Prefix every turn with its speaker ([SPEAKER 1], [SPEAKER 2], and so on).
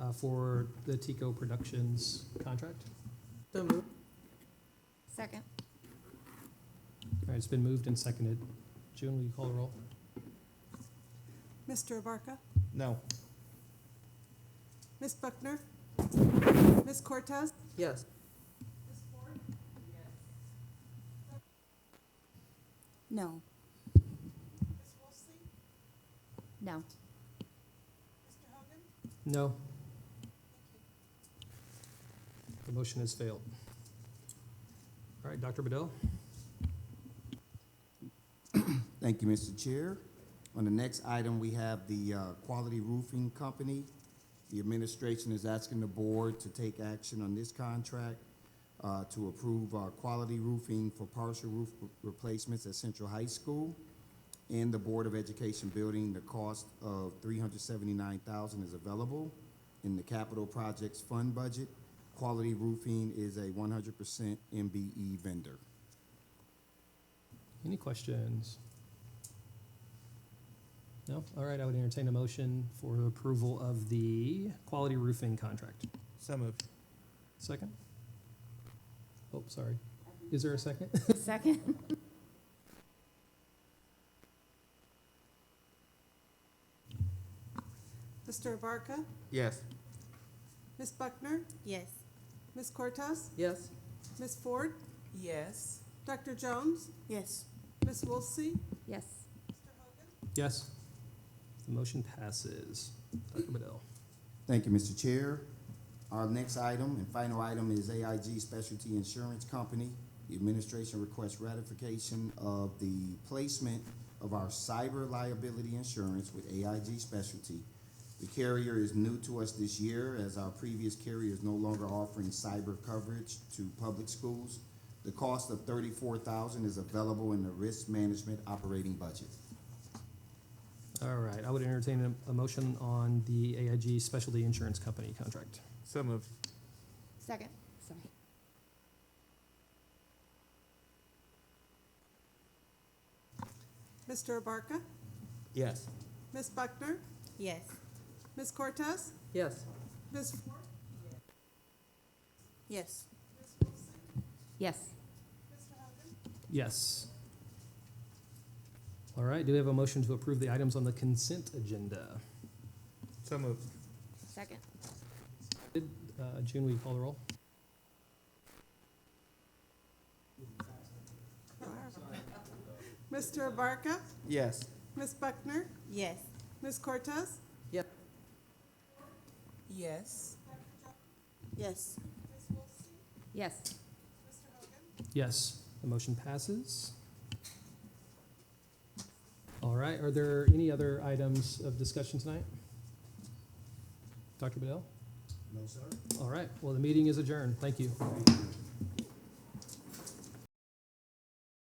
[SPEAKER 1] uh, for the Tico Productions contract.
[SPEAKER 2] So moved.
[SPEAKER 3] Second.
[SPEAKER 1] All right, it's been moved and seconded. June, will you call the roll?
[SPEAKER 2] Mr. Abarca?
[SPEAKER 4] No.
[SPEAKER 2] Ms. Buckner? Ms. Cortez? Yes.
[SPEAKER 3] No. No.
[SPEAKER 1] No. The motion has failed. All right, Dr. Bedell?
[SPEAKER 5] Thank you, Mr. Chair. On the next item, we have the uh, Quality Roofing Company. The administration is asking the board to take action on this contract uh, to approve uh, quality roofing for partial roof re- replacements at Central High School and the Board of Education building. The cost of three hundred seventy-nine thousand is available in the capital projects fund budget. Quality Roofing is a one hundred percent MBE vendor.
[SPEAKER 1] Any questions? No? All right, I would entertain a motion for approval of the quality roofing contract.
[SPEAKER 4] So moved.
[SPEAKER 1] Second? Oh, sorry. Is there a second?
[SPEAKER 3] Second.
[SPEAKER 2] Mr. Abarca?
[SPEAKER 4] Yes.
[SPEAKER 2] Ms. Buckner?
[SPEAKER 3] Yes.
[SPEAKER 2] Ms. Cortez?
[SPEAKER 6] Yes.
[SPEAKER 2] Ms. Ford?
[SPEAKER 6] Yes.
[SPEAKER 2] Dr. Jones?
[SPEAKER 6] Yes.
[SPEAKER 2] Ms. Wolsey?
[SPEAKER 3] Yes.
[SPEAKER 1] Yes. The motion passes. Dr. Bedell?
[SPEAKER 5] Thank you, Mr. Chair. Our next item and final item is AIG Specialty Insurance Company. The administration requests ratification of the placement of our cyber liability insurance with AIG Specialty. The carrier is new to us this year as our previous carrier is no longer offering cyber coverage to public schools. The cost of thirty-four thousand is available in the risk management operating budget.
[SPEAKER 1] All right, I would entertain a, a motion on the AIG Specialty Insurance Company contract.
[SPEAKER 4] So moved.
[SPEAKER 3] Second. Sorry.
[SPEAKER 2] Mr. Abarca?
[SPEAKER 4] Yes.
[SPEAKER 2] Ms. Buckner?
[SPEAKER 3] Yes.
[SPEAKER 2] Ms. Cortez?
[SPEAKER 6] Yes.
[SPEAKER 2] Ms. Ford?
[SPEAKER 6] Yes.
[SPEAKER 3] Yes.
[SPEAKER 1] Yes. All right, do we have a motion to approve the items on the consent agenda?
[SPEAKER 4] So moved.
[SPEAKER 3] Second.
[SPEAKER 1] Uh, June, will you call the roll?
[SPEAKER 2] Mr. Abarca?
[SPEAKER 4] Yes.
[SPEAKER 2] Ms. Buckner?
[SPEAKER 3] Yes.
[SPEAKER 2] Ms. Cortez?
[SPEAKER 6] Yep. Yes. Yes.
[SPEAKER 3] Yes.
[SPEAKER 1] Yes, the motion passes. All right, are there any other items of discussion tonight? Dr. Bedell?
[SPEAKER 5] No, sir.
[SPEAKER 1] All right, well, the meeting is adjourned. Thank you.